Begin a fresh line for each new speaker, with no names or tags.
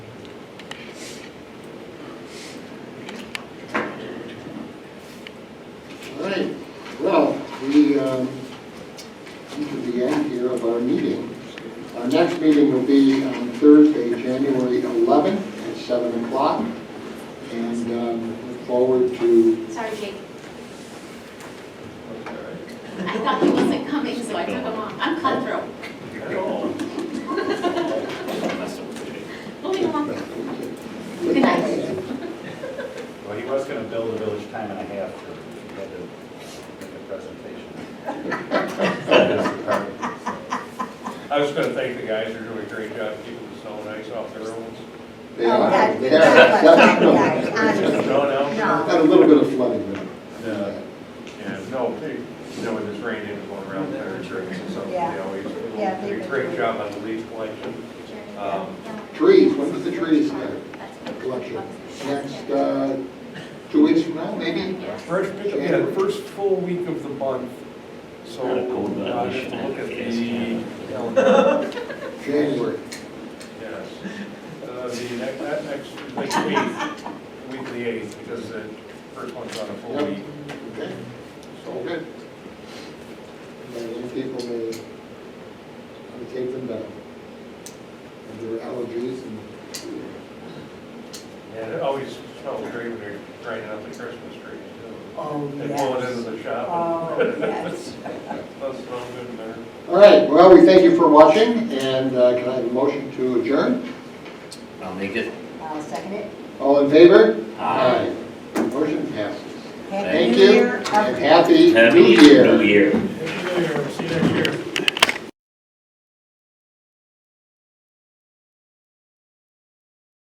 um, 11 at 7 o'clock. And um, look forward to,
Sorry, Jake,
Okay.
I thought he wasn't coming, so I took him off. I'm cutthroat. Moving along. Good night.
Well, he was gonna bill the village time and a half for, he had to make a presentation.
I was gonna thank the guys, they're doing a great job keeping the snow and ice off the roads.
they
Oh,
are,
that-
they
that was not
are.
bad, honestly.
No, no?
Got
No.
a little bit of flooding there.
No. Yeah, no, they, you know, when this rain didn't go around there, it's raining, so they
Yeah.
always,
Yeah,
they
they
do a
do.
great job on the leaf collection. Um,
Trees, when does the trees start, the collection? Next, uh, two weeks from now, maybe?
First, pick- yeah, the first full week of the month, so
Kinda cold, but I
I
wish
have
I
to look at
had
the
gas.
calendar.
January.
Yes. Uh, the next, that next, like, week, week the eighth, because the first one's on a full
Yep.
week,
Okay, all
so.
good. And then people may, may take them down. And their allergies and,
Yeah, it always smells great when they're grinding out the Christmas trees, too.
Oh,
They pull it into
yes.
the shop,
Oh, yes.
and that's smell good in there.
all right, well, we thank you for watching, and uh, can I have a motion to adjourn?
I'll make it.
I'll second it.
All in favor?
Aye.
Aye. Motion passes.
Happy
Thank
New
you,
Year,
and
everyone.
happy new
Happy
year.
New Year.